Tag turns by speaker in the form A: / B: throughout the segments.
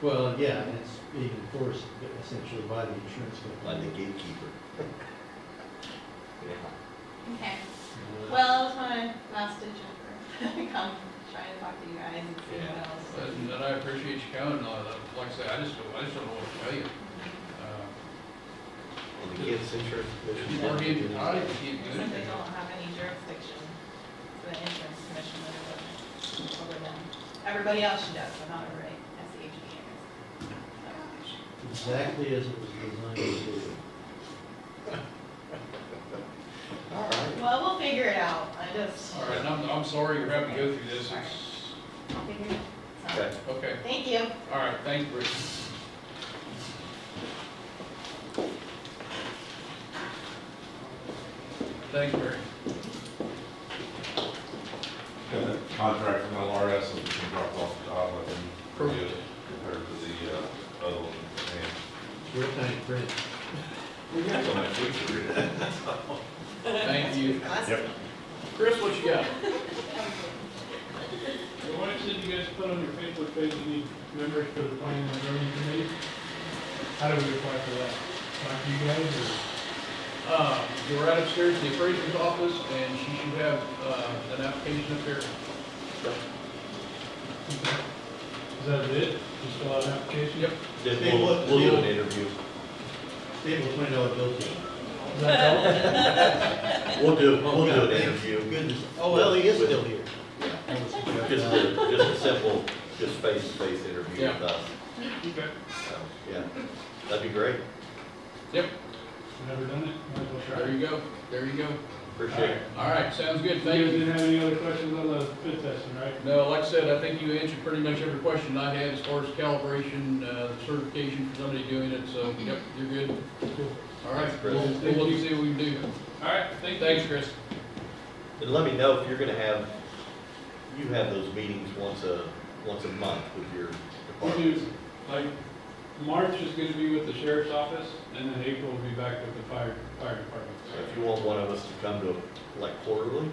A: Well, yeah, and it's being enforced essentially by the insurance
B: by the
A: company.
B: gatekeeper. Yeah.
C: Okay,
A: Uh,
C: well, that was my last ditch effort, come try and talk to you guys and see
B: Yeah.
C: what else.
D: And I appreciate you coming, uh, like I say, I just, don't- I just don't know what to tell you. Uh,
B: And the kids' insurance
D: If
B: commission.
D: you work in your body, you can't do
C: Since they
D: anything.
C: don't have any jurisdiction, so the insurance commission would have over them. Everybody else should does, but not everybody, that's the HDA. So,
A: Exactly as it was designed to do.
B: All right.
C: Well, we'll figure it out, I just,
D: All right, and I'm, I'm sorry you're having to go through this, it's,
C: I'll figure it out. So,
B: Okay.
D: okay,
C: Thank you.
D: all right, thanks, Bruce. Thanks, Barry.
E: Got that contract from LRS that we can drop off the top of and review it compared to the uh, other one.
A: It's real kind of print.
B: We got some in the future.
D: Thank you.
C: Awesome.
D: Chris, what you got?
F: Well, What I said you guys put on your Facebook page, you need members for the planning and zoning committee. How do we apply for that? Talk to you guys or?
D: Uh, you're right upstairs in the appraiser's office, and she should have, uh, an application up there.
F: Is that it? Just fill out an application?
D: Yep.
B: Just
A: Hey,
B: we'll,
A: what-
B: we'll do an interview.
A: They will find out guilty.
F: Is that all?
B: We'll do, we'll
A: Oh,
B: do
A: God,
B: an
A: thank
B: interview.
A: Goodness. Oh, well, he is still here.
B: Just a, just a simple, just face-to-face interview
D: Yeah.
B: with us.
F: Okay.
B: So, yeah, that'd be great.
F: Never done it? Might as well try.
D: There you go, there you go.
B: Appreciate it.
D: All right, sounds good,
F: You
D: thank
F: guys
D: you.
F: didn't have any other questions on the fit testing, right?
D: No, like I said, I think you answered pretty much every question I had as far as calibration, uh, certification for somebody doing it, so, yep, you're good. All right,
B: Thanks, Chris.
D: we'll, we'll look and see what we can do.
F: All right, thank you.
D: Thanks, Chris.
B: And let me know if you're gonna have, you have those meetings once a, once a month with your
F: We
B: department.
F: do, like, March is gonna be with the sheriff's office, and then April will be back with the fire, fire department.
B: So if you want one of us to come to, like quarterly,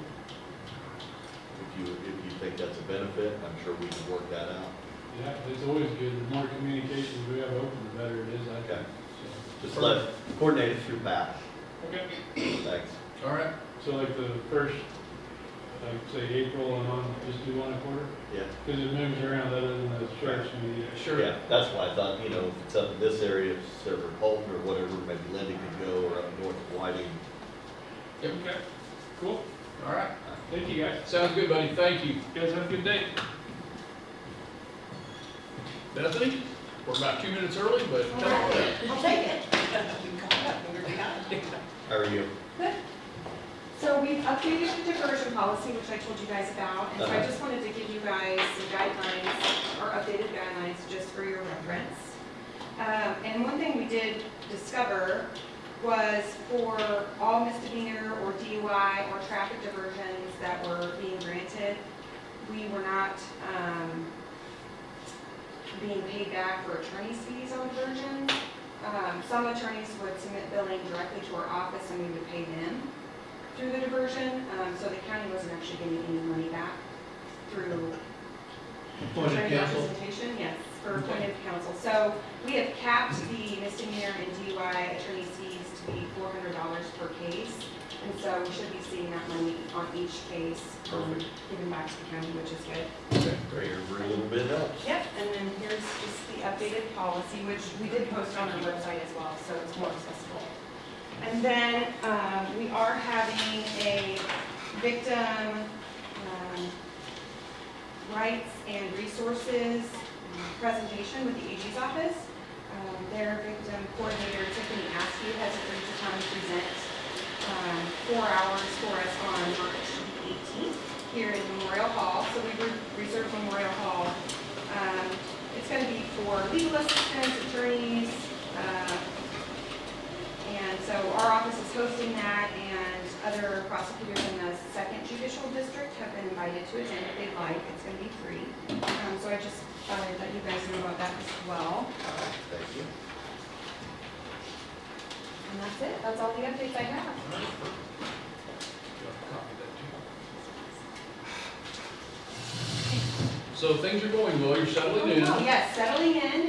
B: if you, if you think that's a benefit, I'm sure we can work that out.
F: Yeah, it's always good, the more communications we have open, the better it is, I
B: Okay.
F: think.
B: Just let, coordinate it through back.
F: So, Okay.
B: Thanks.
D: All right,
F: So like the first, like say April and on, just do one a quarter?
B: Yeah.
F: Because it moves around other than the sheriff's meeting.
D: sure.
B: Yeah, that's why I thought, you know, if it's up in this area, server Holton or whatever, maybe Levy could go, or up north Whiting.
D: Yep,
F: Okay, cool.
D: all right.
F: Thank you guys.
D: Sounds good, buddy, thank you.
F: You guys have a good day.
D: Bethany, we're about two minutes early, but.
C: I'll take it. We got it, we were behind.
B: How are you?
G: So we've updated the diversion policy, which I told you guys about, and so I
B: Uh-huh.
G: just wanted to give you guys some guidelines, or updated guidelines, just for your reference. Um, and one thing we did discover was for all misdemeanor or DUI or traffic diversions that were being granted, we were not, um, being paid back for attorney's fees on diversions. Um, some attorneys would submit billing directly to our office and we would pay them through the diversion, um, so the county wasn't actually getting any money back through
A: Point of
G: attorney
A: counsel.
G: representation, yes, for appointed counsel. So we have capped the misdemeanor and DUI attorney's fees to be four hundred dollars per case. And so we should be seeing that money on each case, um,
B: Perfect.
G: given back to the county, which is good.
B: Great, every little bit helps.
G: Yep, and then here's just the updated policy, which we did post on our website as well, so it's more accessible. And then, um, we are having a victim, um, rights and resources um, presentation with the AG's office. Um, their victim coordinator Tiffany Askey has agreed to come present, um, four hours for us on March eighteenth here in Memorial Hall. So we re- reserved Memorial Hall um, It's going to be for legal assistants, attorneys, uh, and so our office is hosting that, and other prosecutors in the second judicial district have been invited to attend if they'd like. It's going to be free. Um, So I just thought I'd let you guys know about that as well.
B: Thank you.
G: And that's it, that's all the updates I have.
D: So things are going well, you're settling in.
G: Oh, Yes, settling in,